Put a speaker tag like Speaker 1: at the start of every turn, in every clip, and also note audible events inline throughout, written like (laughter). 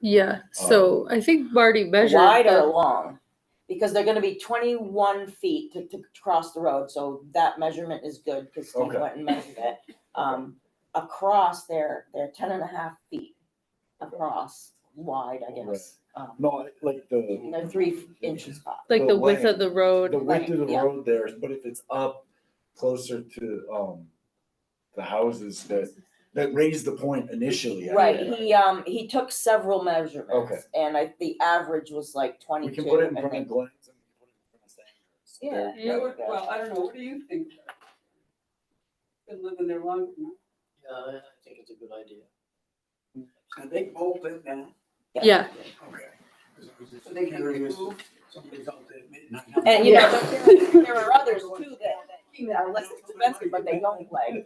Speaker 1: Yeah, so I think Marty measured.
Speaker 2: Wide
Speaker 1: the-
Speaker 2: or long? Because they're gonna be twenty-one feet to, to cross the road, so that measurement is good, because Steve
Speaker 3: Okay.
Speaker 2: went and measured it. Um, across there, they're ten and a half feet across wide, I guess. Um,
Speaker 3: No, I- like the,
Speaker 2: and They're three inches up.
Speaker 1: Like
Speaker 3: the
Speaker 1: the width
Speaker 3: length,
Speaker 1: of the
Speaker 3: the
Speaker 1: road,
Speaker 3: width of the
Speaker 2: yeah.
Speaker 3: road there, but if it's up closer to, um, the houses that, that raised the point initially. I
Speaker 2: Right,
Speaker 3: think.
Speaker 2: he, um, he took several measurements, and I, the average was like
Speaker 3: We
Speaker 2: twenty-two.
Speaker 3: can put it in
Speaker 2: I
Speaker 3: front of
Speaker 2: think.
Speaker 3: Glenn's. and we can put it in front of Sanger's. So
Speaker 2: Yeah.
Speaker 3: there you
Speaker 4: Yeah,
Speaker 3: go.
Speaker 4: what- well, I don't know, what do you think? Been living there long enough.
Speaker 5: Yeah, I I think it's a good idea. Are they both in now?
Speaker 1: yeah,
Speaker 5: Okay. 'Cause I was just
Speaker 4: So they can
Speaker 5: curious
Speaker 4: move?
Speaker 5: if Somebody's out there at midnight.
Speaker 2: And you know,
Speaker 1: Yeah.
Speaker 2: there- there there are others too that, that are less expensive, but they don't play.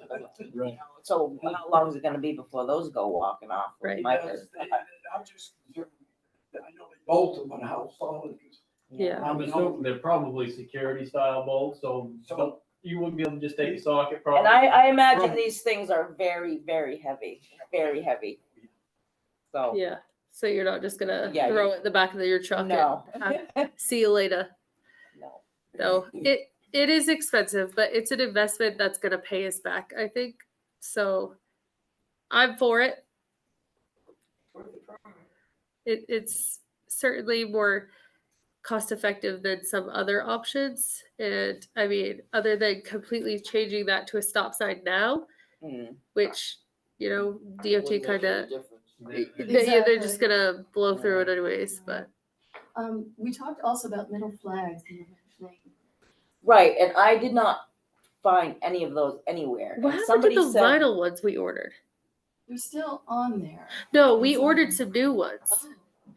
Speaker 3: Right.
Speaker 2: So how long is it gonna be before those go walking off?
Speaker 1: Right.
Speaker 2: My-
Speaker 5: Because they- I'm just concerned, that I know they both in one house, all of us.
Speaker 1: yeah.
Speaker 6: I'm assuming they're probably security style bolts, so
Speaker 5: So,
Speaker 6: you wouldn't be able to just take a socket probably.
Speaker 2: And I, I imagine these things are very, very heavy, very heavy. So,
Speaker 1: Yeah, so you're not just gonna
Speaker 2: Oh. Yeah,
Speaker 1: throw it in the back of your truck and
Speaker 2: no,
Speaker 1: see you later.
Speaker 2: no.
Speaker 1: No, it, it is expensive, but it's an investment that's gonna pay us back, I think. So I'm for it. It, it's certainly more cost effective than some other options. And I mean, other than completely changing that to a stop sign now,
Speaker 2: Mm.
Speaker 1: which, you know, DOT
Speaker 5: wouldn't make
Speaker 1: kinda
Speaker 5: any difference.
Speaker 1: They- Yeah, they're just gonna blow through it anyways, but
Speaker 7: Um, we talked also about middle flags and everything.
Speaker 2: Right, and I did not find any of those anywhere. And
Speaker 1: what happened to
Speaker 2: somebody
Speaker 1: the
Speaker 2: said-
Speaker 1: vinyl ones we ordered?
Speaker 7: They're still on there.
Speaker 1: No, we
Speaker 7: It's
Speaker 1: ordered
Speaker 7: on-
Speaker 1: some new ones.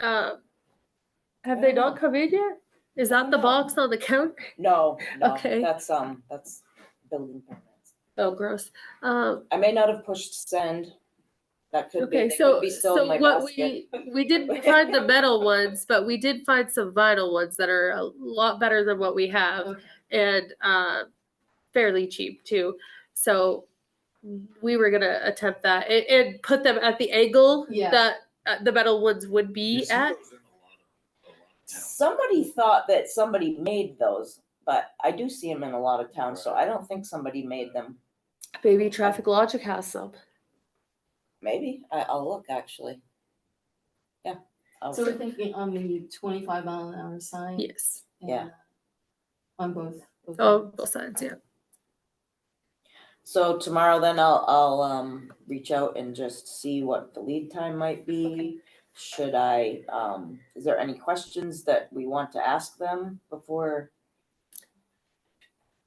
Speaker 7: Oh,
Speaker 1: Um, have
Speaker 2: I
Speaker 1: they
Speaker 2: don't
Speaker 1: not come in yet? Is that the
Speaker 2: No.
Speaker 1: box on the counter? (laughs)
Speaker 2: No, no,
Speaker 1: Okay.
Speaker 2: that's, um, that's building permits.
Speaker 1: Oh, gross. Um,
Speaker 2: I may not have pushed send. That could be,
Speaker 1: okay,
Speaker 2: they could
Speaker 1: so
Speaker 2: be still in
Speaker 1: so
Speaker 2: my
Speaker 1: what
Speaker 2: basket.
Speaker 1: we we didn't find the metal ones, but we did find some vinyl ones that are a lot better than what we have.
Speaker 7: okay.
Speaker 1: and uh, fairly cheap too. So we were gonna attempt that and, and put them at the angle
Speaker 7: Yeah.
Speaker 1: that uh, the metal ones would
Speaker 3: You
Speaker 1: be
Speaker 3: see
Speaker 1: at.
Speaker 3: those in a lot of- a lot of towns.
Speaker 2: Somebody thought that somebody made those, but I do see them in a lot of towns, so I don't think somebody made them.
Speaker 1: Maybe Traffic Logic has some.
Speaker 2: Maybe, I, I'll look actually. Yeah. I'll
Speaker 7: So we're
Speaker 2: see.
Speaker 7: thinking on the twenty-five mile an hour sign.
Speaker 1: Yes.
Speaker 2: Yeah.
Speaker 7: and, uh, On both. both
Speaker 1: Oh,
Speaker 7: ends.
Speaker 1: both sides. Yeah.
Speaker 2: So tomorrow then I'll, I'll, um, reach out and just see what the lead time might be. Should I, um, is there any questions that we want to ask them before?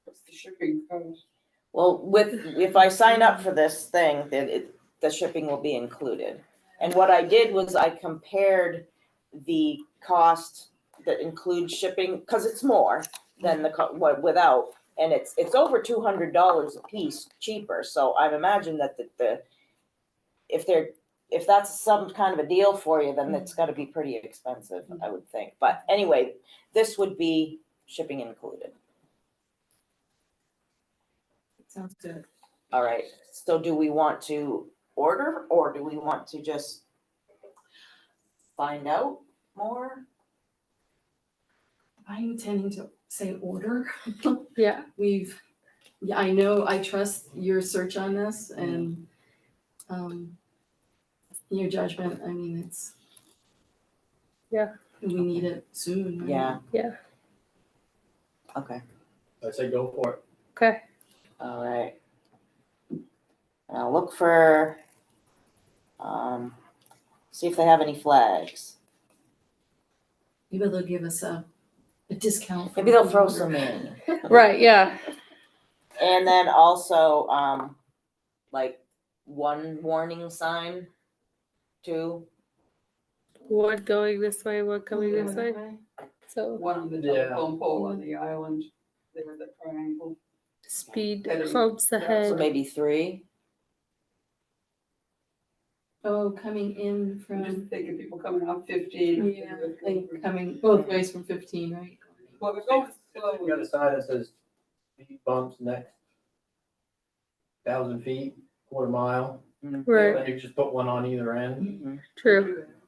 Speaker 4: What's the shipping cost?
Speaker 2: Well, with, if I sign up for this thing, then it, the shipping will be included. And what I did was I compared the cost that includes shipping, cause it's more than the, co- what, without. And it's, it's over two hundred dollars a piece cheaper, so I imagine that the, the, if they're, if that's some kind of a deal for you, then it's gotta be pretty expensive, I would think. But anyway, this would be shipping included.
Speaker 7: Sounds good.
Speaker 2: All right, so do we want to order or do we want to just find out more?
Speaker 7: I'm intending to say order.
Speaker 1: Yeah.
Speaker 7: We've, yeah, I know, I trust your search on this
Speaker 2: Mm-hmm.
Speaker 7: and, um, your judgment. I mean, it's.
Speaker 1: Yeah.
Speaker 7: We need it soon. right?
Speaker 2: Yeah.
Speaker 1: Yeah.
Speaker 2: Okay,
Speaker 6: I say go for it.
Speaker 1: Okay.
Speaker 2: all right. And I'll look for, um, see if they have any flags.
Speaker 7: Maybe they'll give us a, a discount. for
Speaker 2: Maybe they'll throw
Speaker 7: order.
Speaker 2: some in.
Speaker 1: Right. Yeah.
Speaker 2: And then also, um, like one warning sign, two.
Speaker 1: One going this way, one coming this way.
Speaker 7: Right.
Speaker 1: So
Speaker 4: One on the
Speaker 6: Yeah.
Speaker 4: telephone pole on the island, there was that triangle.
Speaker 1: speed
Speaker 4: Better-
Speaker 1: clumps
Speaker 4: yeah, so
Speaker 2: So
Speaker 1: ahead.
Speaker 2: maybe three.
Speaker 7: Oh, coming in
Speaker 4: I'm
Speaker 7: from,
Speaker 4: just thinking people coming off fifteen.
Speaker 7: yeah, like coming both ways from fifteen, right?
Speaker 4: Well, we're going slow.
Speaker 6: You got a sign that says speed bumps next thousand feet, quarter mile,
Speaker 1: Right.
Speaker 6: then you just put one on either end.
Speaker 2: Mhm.
Speaker 1: True.
Speaker 4: Do that.